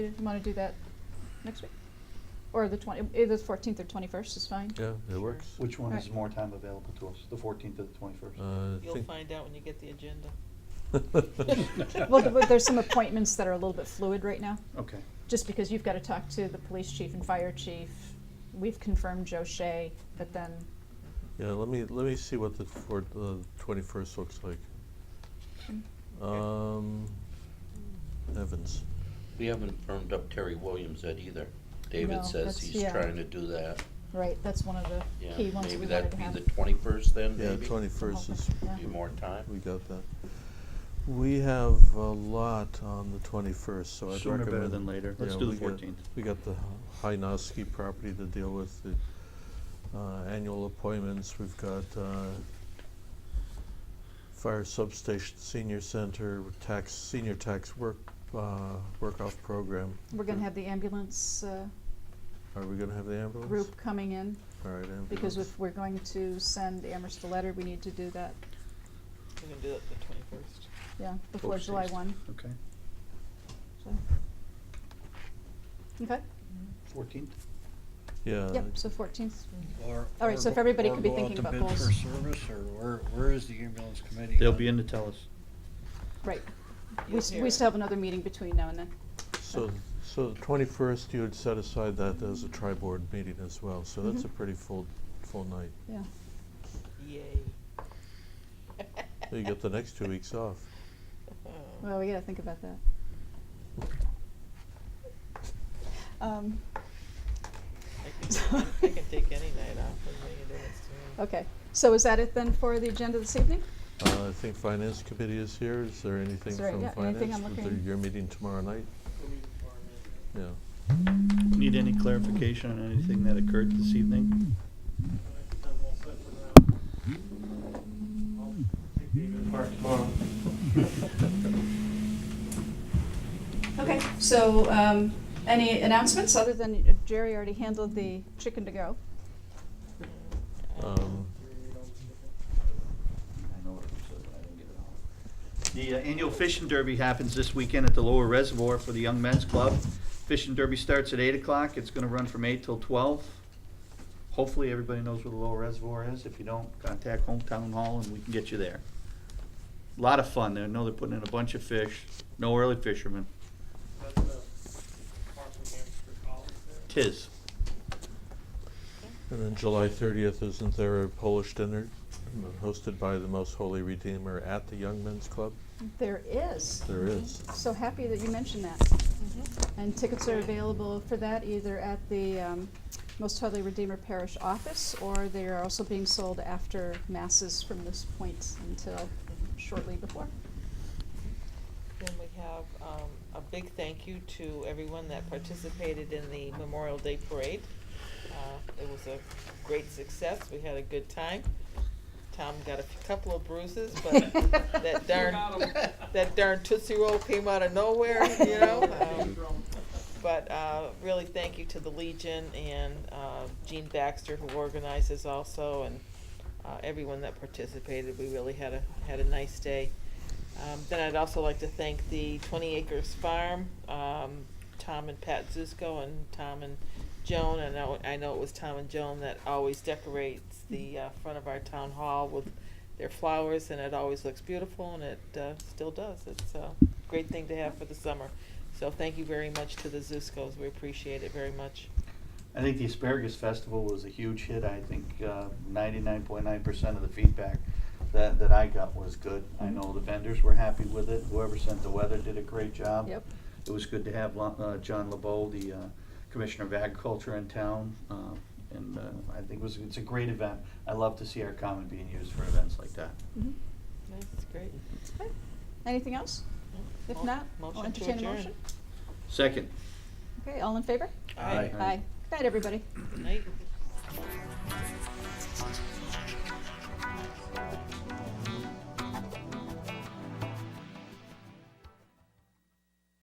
You want to do that next week? Or the twenty, either the fourteenth or twenty-first is fine. Yeah, it Sure. works. Which one is Right. more time available to us, the fourteenth or the twenty-first? Uh, I You'll think- find out when you get the agenda. Well, th- there's some appointments that are a little bit fluid right now, Okay, just because you've got to talk to the police chief and fire chief. We've confirmed Joe Shea, but then, Yeah, let me, let me see what the four, uh, twenty-first looks like. Um, Evans, We haven't firmed up Terry Williams yet either. No, David that's- says he's yeah. trying to do that. right, that's one of the Yeah, key ones that maybe we wanted that'd to be have. the twenty-first then, yeah, maybe? twenty-first is, Yeah. Give you more time. we got that. We have a lot on the twenty-first, so I'd recommend. Sooner better than later. Let's yeah, do the we got- 14th. We got the Hynoski property to deal with, the, uh, annual appointments, we've got, uh, fire substation, senior center, tax, senior tax work, uh, work-off program. We're gonna have the ambulance uh, Are we gonna have the ambulance? group coming in, All right, ambulance. because if we're going to send Amherst a letter, we need to do that, We're gonna do it the twenty-first. yeah, before July one, okay, so. Okay, fourteenth? Yeah. yep, so fourteenth, Or- All right, so or if everybody go- could be or go out thinking to about bid goals. for service, or where, where is the ambulance committee? They'll on- be in to tell us. right. We, s- we still have another meeting between now and then. So, so the twenty-first, you had set aside that as a tri-board meeting as well, so that's Mhm. a pretty full, full night. Yeah. Yay. You get the next two weeks off. Well, we gotta think about that. Um, I can, I can take any night off, doesn't make a difference to me. okay, so is that it then for the agenda this evening? Uh, I think Finance Committee is here, is there anything Is there- from yeah, anything Finance? I'm With looking- the- Your meeting tomorrow night? Yeah, Need any clarification on anything that occurred this evening? Okay, so, um, any announcements other than uh, Jerry already handled the chicken to go? um, I know what it was, but I didn't get it all. The uh, annual fishing derby happens this weekend at the Lower Reservoir for the Young Men's Club. Fishing derby starts at eight o'clock, it's gonna run from eight till twelve. Hopefully, everybody knows where the Lower Reservoir is, if you don't, contact Hometown Hall and we can get you there. Lot of fun, I know they're putting in a bunch of fish, no early fishermen, That's the Park and Hampshire College there. tis. and then July thirtieth, isn't there a Polish dinner hosted by the Most Holy Redeemer at the Young Men's Club? There is. There is. So happy that you mentioned that. Mhm. And tickets are available for that either at the um, Most Holy Redeemer Parish office, or they are also being sold after masses from this point until shortly before. Then we have, um, a big thank you to everyone that participated in the Memorial Day Parade. Uh, it was a great success, we had a good time. Tom got a couple of bruises, but that darn, that darn Tootsie Roll came out of nowhere, you know? Um, But uh, really, thank you to the Legion and uh, Gene Baxter, who organizes also, and uh, everyone that participated. We really had a had a nice day. Um, then I'd also like to thank the Twenty Acres Farm, um, Tom and Pat Zusko, and Tom and Joan. I know I know it was Tom and Joan that always decorates the uh, front of our town hall with their flowers, and it always looks beautiful, and it uh, still does. It's a great thing to have for the summer. So thank you very much to the Zuskos. We appreciate it very much. I think the Asparagus Festival was a huge hit. I think uh, ninety-nine point nine percent of the feedback that, that I got was good. I know the vendors were happy with it. Whoever sent the weather did a great job. Yep. It was good to have Lo- uh, John LeBeau, the uh, Commissioner of Agriculture in town, uh, and uh, I think it was, it's a great event. I love to see our common being used for events like that. Mhm. That's great. Okay. Anything else? If Mo- not, I'll motion to entertain a adjourn. motion. Second. Okay, all in favor? Aye. Aye. Good night, everybody. Night.